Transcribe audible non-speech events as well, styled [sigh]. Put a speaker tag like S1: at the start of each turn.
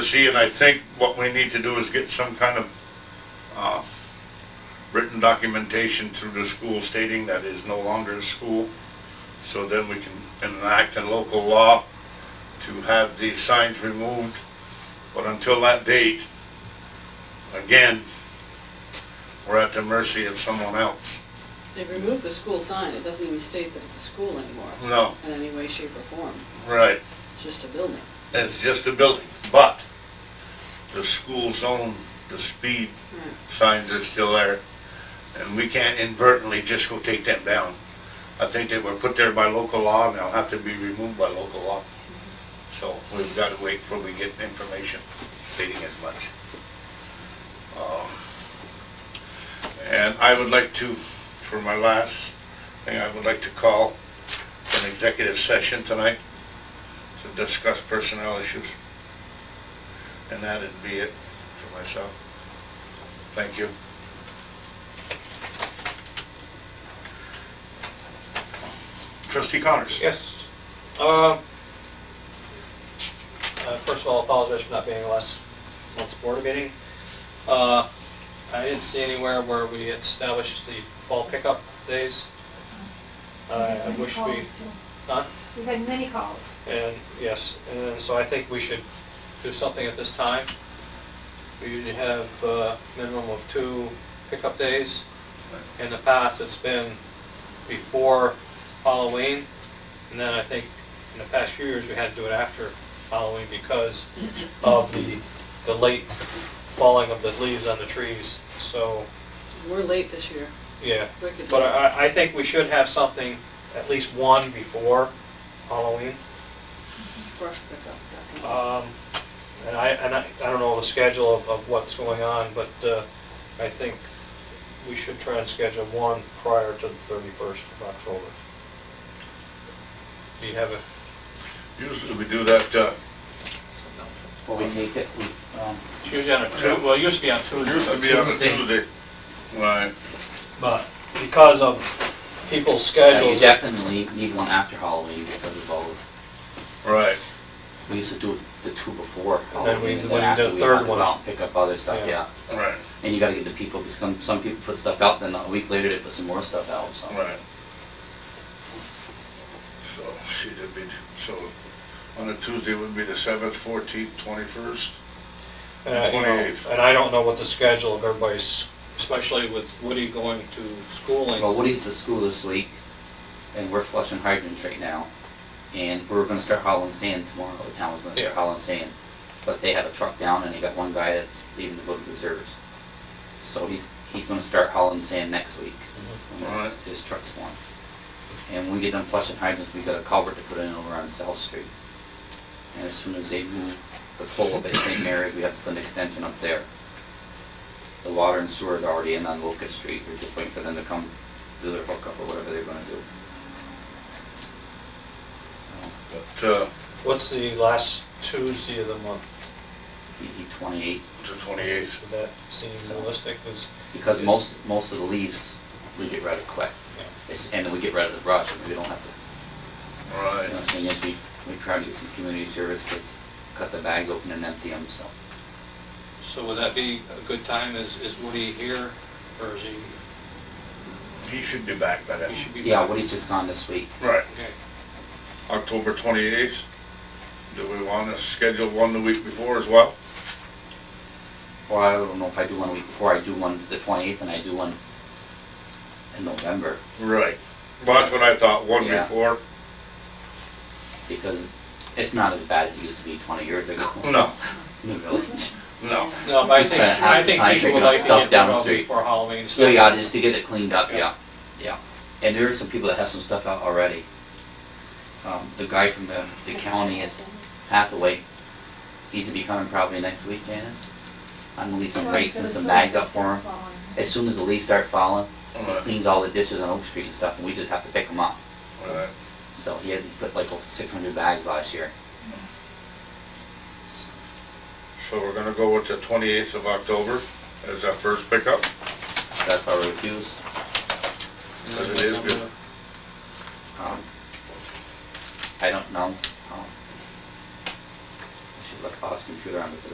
S1: See, and I think what we need to do is get some kind of, uh, written documentation through the school stating that it is no longer a school. So then we can enact a local law to have these signs removed. But until that date, again, we're at the mercy of someone else.
S2: They removed the school sign, it doesn't even state that it's a school anymore,
S1: No,
S2: in any way, shape, or form,
S1: right.
S2: it's just a building.
S1: It's just a building, but the school zone, the speed signs are still there. And we can't inadvertently just go take them down. I think they were put there by local law and they'll have to be removed by local law. So we've got to wait till we get information stating as much. Um, And I would like to, for my last thing, I would like to call an executive session tonight to discuss personnel issues. And that'd be it for myself. Thank you. Trustee Connors?
S3: Yes. Uh, uh, First of all, apologize for not being last month's board meeting. Uh, I didn't see anywhere where we established the fall pickup days. I Uh, I wish we, huh?
S4: We've had many calls.
S3: And, yes, and so I think we should do something at this time. We usually have a minimum of two pickup days. In the past, it's been before Halloween, and then I think in the past few years, we had to do it after Halloween because of the, the late falling of the leaves on the trees, so,
S2: We're late this year,
S3: yeah.
S2: wicked
S3: But
S2: late.
S3: I, I think we should have something, at least one before Halloween.
S2: brush pickup. that kind of-
S3: Um, And I, and I, I don't know the schedule of, of what's going on, but uh, I think we should try and schedule one prior to the thirty-first of October. Do you have a?
S1: Usually we do that, uh,
S5: Well, we take it, we, um,
S3: It's usually on a
S1: Tu-
S3: well, it used to be on Tuesday.
S1: usually be on a
S5: Tuesday.
S1: Tuesday. Right,
S3: But because of people's
S5: yeah, you
S3: schedules,
S5: definitely need one after Halloween because of all, of-
S1: right.
S5: we used to do the two before
S3: And then we-
S5: Halloween.
S3: when we
S5: after
S3: did the
S5: we'd have
S3: third
S5: to
S3: one.
S5: go out and Pick up other stuff,
S3: Yeah.
S5: yeah.
S1: Right,
S5: And you gotta get the people, because some, some people put stuff out, then a week later they put some more stuff out, so.
S1: right. So, see, that'd be, so, on a Tuesday would be the seventh, fourteenth, twenty-first.
S3: and I, you know,
S1: 28th.
S3: and I don't know what the schedule of everybody's, especially with Woody going to schooling.
S5: Well, Woody's at school this week, and we're flushing hydrants right now. And we're gonna start hauling sand tomorrow, the town was gonna
S3: Yeah.
S5: start hauling sand. But they have a truck down and they got one guy that's leaving the book reserves. So he's, he's gonna start hauling sand next week. when his-
S1: Alright.
S5: His truck's one. And when we get done flushing hydrants, we got a culvert to put in over on South Street. And as soon as they move the pole up at St. Mary's, we have to put an extension up there. The water and sewer is already in on Locust Street, we're just waiting for them to come do their hookup or whatever they're gonna do.
S1: But, uh,
S3: What's the last Tuesday of the month?
S5: DD twenty-eight,
S1: to twenty-eighth,
S3: Would that seem realistic? 'Cause
S5: because most, most of the leaves, we get rid of quick.
S3: Yeah.
S5: It's- And then we get rid of the brush, and we don't have to
S1: right.
S5: You know, thing is, we, we try to get some community service kids, cut the bags open and empty them, so.
S3: So would that be a good time? Is, is Woody here or is he,
S1: He should be back by then.
S3: he should be?
S5: Yeah, Woody's just gone this week.
S1: Right,
S3: Okay.
S1: October twenty-eighth. Do we wanna schedule one the week before as well?
S5: Or I don't know if I do one a week before, I do one the twenty-eighth and I do one in November,
S1: Right. Well, that's what I thought, one
S5: Yeah.
S1: before.
S5: because it's not as bad as it used to be twenty years ago. [laughs]
S1: No,
S5: In the village.
S1: no.
S3: No, but I think, I think
S5: I
S3: people would
S5: figured
S3: like to
S5: stuff
S3: get
S5: down the
S3: them out
S5: street.
S3: before Halloween. so-
S5: Yeah, yeah, just to get it cleaned up,
S3: Yeah.
S5: yeah, yeah. And there are some people that have some stuff out already. Um, the guy from the, the county is Hathaway, he's gonna be coming probably next week, Janice. I'm gonna leave some rakes and some bags up for him. As soon as the leaves start falling, he
S1: Right.
S5: cleans all the ditches on Oak Street and stuff, and we just have to pick them up.
S1: Right.
S5: So he had put like six hundred bags last year.
S1: So we're gonna go with the twenty-eighth of October as our first pickup,
S5: That's our refuse.
S1: because it is good.
S5: Um, I don't know. um, I should look off computer on the